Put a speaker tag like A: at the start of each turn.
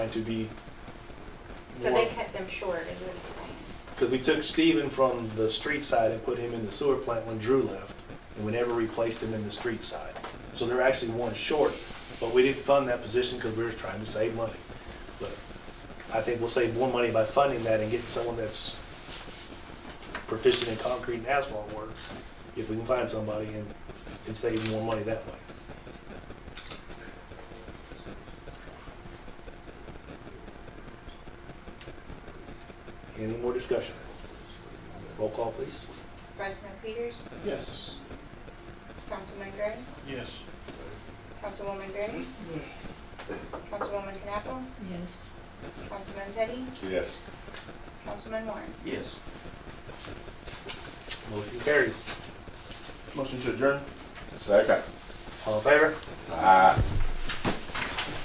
A: trying to be
B: So they cut them short, is what you're saying?
A: Because we took Steven from the street side and put him in the sewer plant when Drew left, and we never replaced him in the street side. So they're actually one short, but we didn't fund that position because we were trying to save money. But I think we'll save more money by funding that and getting someone that's proficient in concrete and asphalt work, if we can find somebody and, and save more money that way. Any more discussion? Roll call, please.
B: President Peters,
C: Yes.
B: Councilman Gray,
C: Yes.
B: Councilwoman Gray,
D: Yes.
B: Councilwoman Knappel,
D: Yes.
B: Councilman Petty,
E: Yes.
B: Councilman Warren.
C: Yes.
A: Motion carried.
C: Motion to adjourn?
E: Second.
A: All in favor?
E: Aye.